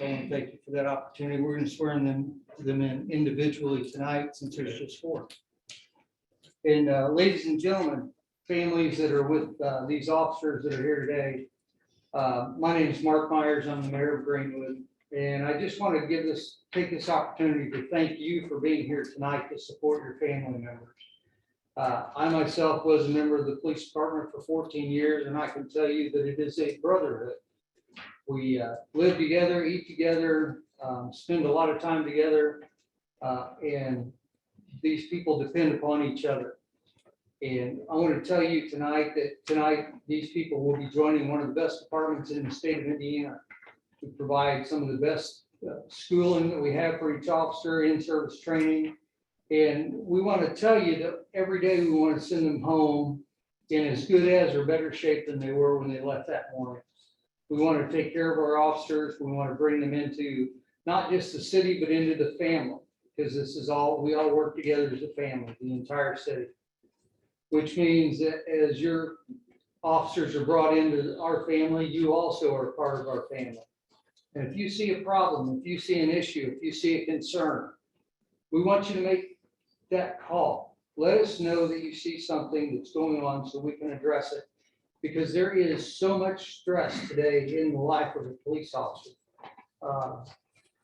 And thank you for that opportunity. We're going to swear in them, them in individually tonight since there's just four. And uh, ladies and gentlemen, families that are with uh, these officers that are here today. uh, My name is Mark Myers. I'm the mayor of Greenwood. And I just want to give this, take this opportunity to thank you for being here tonight to support your family members. Uh, I myself was a member of the police department for 14 years, and I can tell you that it is a brotherhood. We uh, live together, eat together, um, spend a lot of time together, uh, and these people depend upon each other. And I want to tell you tonight that tonight, these people will be joining one of the best departments in the state of Indiana to provide some of the best uh, schooling that we have for each officer, in-service training. And we want to tell you that every day we want to send them home in as good as or better shape than they were when they left that morning. We want to take care of our officers. We want to bring them into not just the city, but into the family. Because this is all, we all work together as a family, the entire city. Which means that as your officers are brought into our family, you also are part of our family. And if you see a problem, if you see an issue, if you see a concern, we want you to make that call. Let us know that you see something that's going on so we can address it. Because there is so much stress today in the life of a police officer. uh,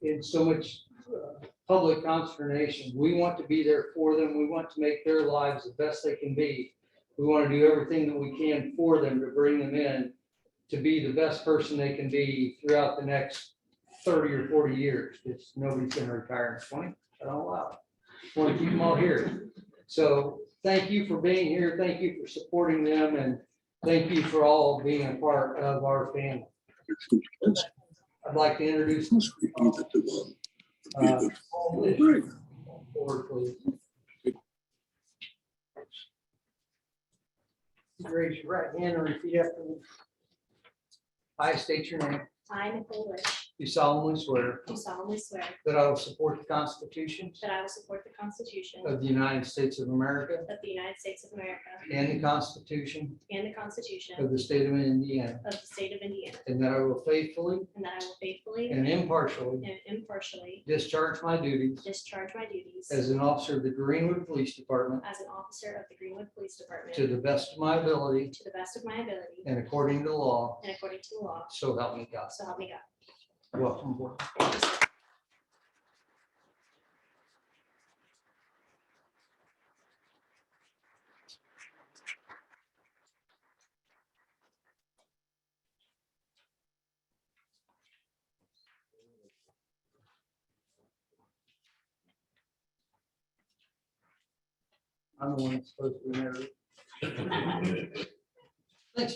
And so much uh, public consternation. We want to be there for them. We want to make their lives the best they can be. We want to do everything that we can for them to bring them in to be the best person they can be throughout the next thirty or forty years. Because nobody's gonna retire in twenty, I don't allow. it want to keep them all here. So thank you for being here. Thank you for supporting them and thank you for all being a part of our family. I'd like to introduce. uh, Paul Lish. Forward, please. Raise your right hand and repeat after me. I state your name. I, Nicole Bush, You solemnly swear do solemnly swear that I will support the Constitution that I will support the Constitution of of the United States of America the United States of America and the Constitution and the Constitution of the State of Indiana, of the State of Indiana, and that I will faithfully and that I will faithfully And impartially and impartially discharge my duties discharge my duties as an officer of the Greenwood Police Department as an officer of the Greenwood Police Department to the best of my ability to the best of my ability and according to law, and according to the law, so help me God. so help me God. Welcome aboard. I'm the one that's supposed to be married. Thanks.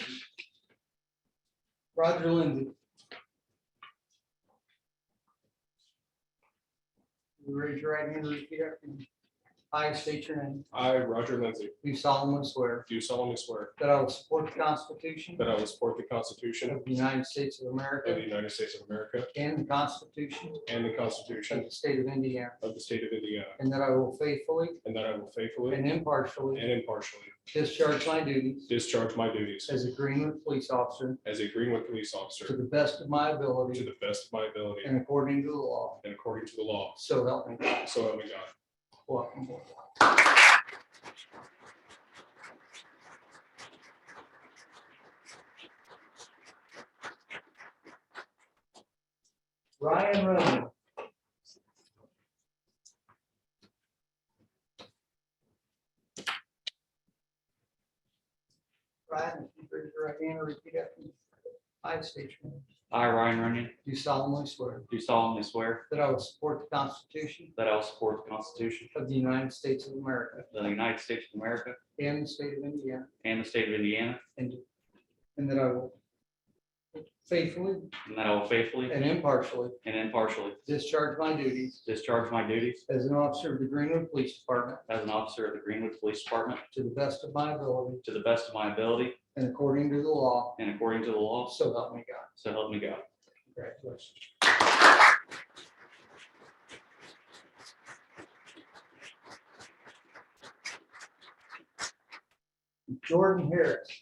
Roger Lindsay. You Raise your right hand and repeat after me. I state your name. I, Roger Lindsay, Do solemnly swear do solemnly swear that I will support the Constitution that I will support the Constitution of the United States of of the America United States of America and the Constitution and the of Constitution the State of Indiana, of the State of Indiana, and that I will faithfully and that I will faithfully and impartially and impartially discharge my duties discharge my duties as a Greenwood police officer as a Greenwood police to officer the best of my to ability the best of my ability and according to the law. and according to the law. So help me God. So help me God. Welcome aboard. Ryan Rowan. Ryan, if you raise your right hand and repeat after me. I state your name. I, Ryan Rooney, Do solemnly swear do solemnly swear that I will support the Constitution that I will support the Constitution of the United States of America of the United States of America and the state of Indiana. and the state of Indiana, And, and that I will faithfully and that I will faithfully and impartially and impartially discharge my duties discharge my duties as an officer of the Greenwood Police Department as an officer of the Greenwood Police Department to the best of my ability to the best of my ability and according to the law, and according to the law, so help me God. so help me God. Congratulations. Jordan Harris.